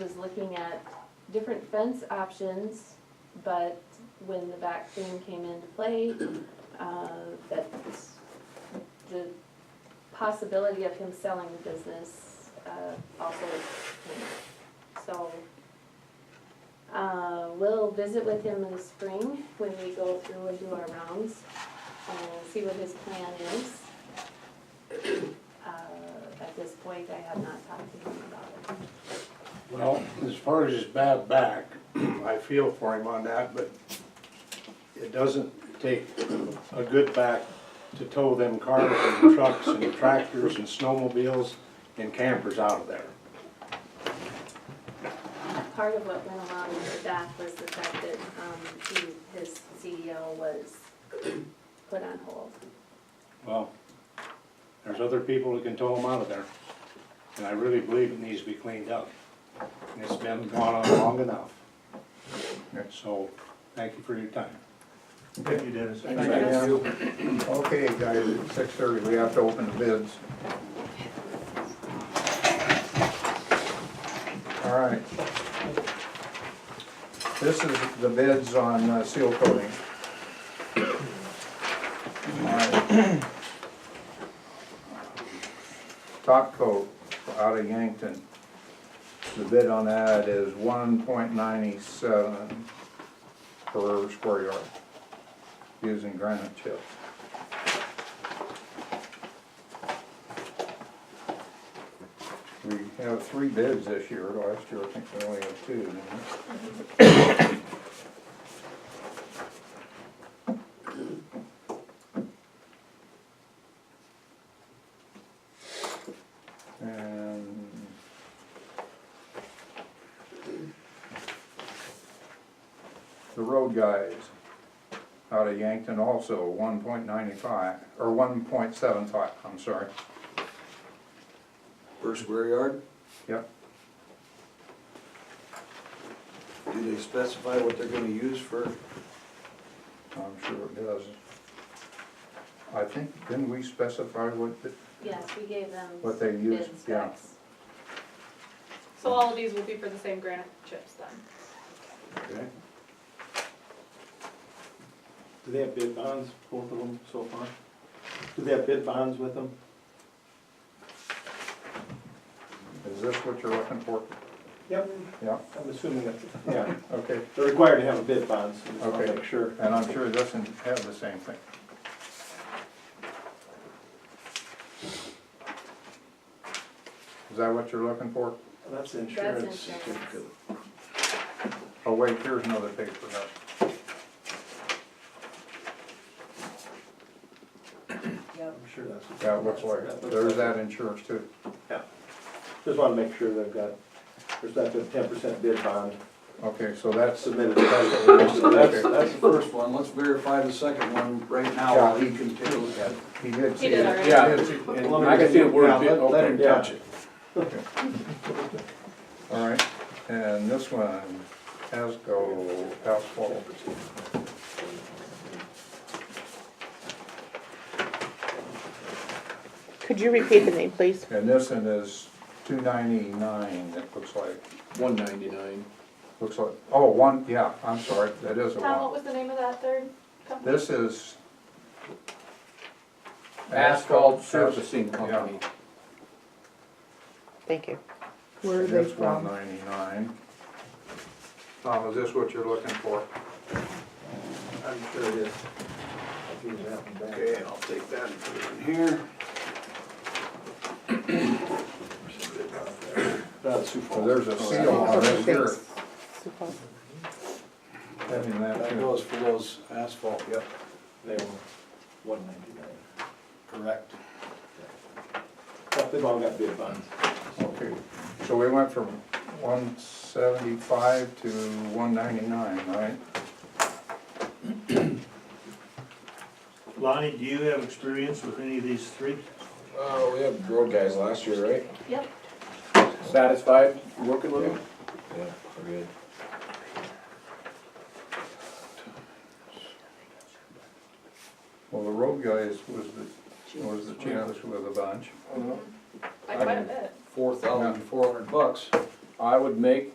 was looking at different fence options, but when the back thing came into play, uh, that the possibility of him selling the business, uh, also came up. So, uh, we'll visit with him in the spring when we go through and do our rounds and see what his plan is. Uh, at this point, I have not talked to him about it. Well, as far as his bad back, I feel for him on that, but it doesn't take a good back to tow them cars and trucks and tractors and snowmobiles and campers out of there. Part of what went along with that was the fact that, um, he, his CEO was put on hold. Well, there's other people that can tow them out of there, and I really believe it needs to be cleaned up. And it's been gone on long enough. So, thank you for your time. Thank you, Dennis. Thank you. Okay, guys, at six thirty, we have to open the bids. All right. This is the bids on uh, seal coating. All right. Top coat out of Yankton. The bid on that is one point ninety-seven per square yard using granite chip. We have three bids this year, last year I think we only had two, didn't we? And the road guys out of Yankton also, one point ninety-five, or one point seven five, I'm sorry, Per square yard? yep. Do they specify what they're gonna use for, I'm sure it does. I think, didn't we specify what, the- Yes, we gave them What they bid used, yeah. specs. So all of these will be for the same granite chips then? okay? Do they have bid bonds, both of them so far? Do they have bid bonds with them? is this what you're looking for? Yep. Yeah, I'm assuming that, yeah, okay, they're required to have a bid bond, so just wanna Okay. make sure. and I'm sure it doesn't have the same thing. Is that what you're looking for? That's insurance. insurance. Oh, wait, here's another paper, no. I'm sure that's. what- yeah, it looks like, that it. looks there's like that insurance too. it. Yeah, just wanna make sure they've got, there's not the ten percent bid bond Okay, so that's, submitted. So that's, okay, that's the first one, let's verify the second one right now while he can take a look at it. he did see did it. already. He did see it. And I can see the word bid, Yeah, let- Let him okay. Yeah. touch it. All right, and this one, Asco asphalt. Could you repeat the name, please? And this one is two ninety-nine, it looks like, One ninety-nine. looks like, oh, one, yeah, I'm sorry, that is a Tom, what one. was the name of that third company? This is. Asphalt Surfacing Company. Thank you. Where That's one ninety-nine. Tom, is this what you're looking for? I'm sure it is. I'll give you that one back. Okay, I'll take that and put it in here. That's Sioux So Falls. there's a seal on this here, Super. having that That too. goes for those asphalt, yep, They were one ninety-nine. correct. They've all got bid bonds. Okay, so we went from one seventy-five to one ninety-nine, right? Lonnie, do you have experience with any of these three? Uh, we had road guys last year, right? Yep, Satisfied working with them? Yeah, we're good. Well, the road guys was the, was the cheapest with a bunch. By quite a bit. Four thousand four hundred bucks. I would make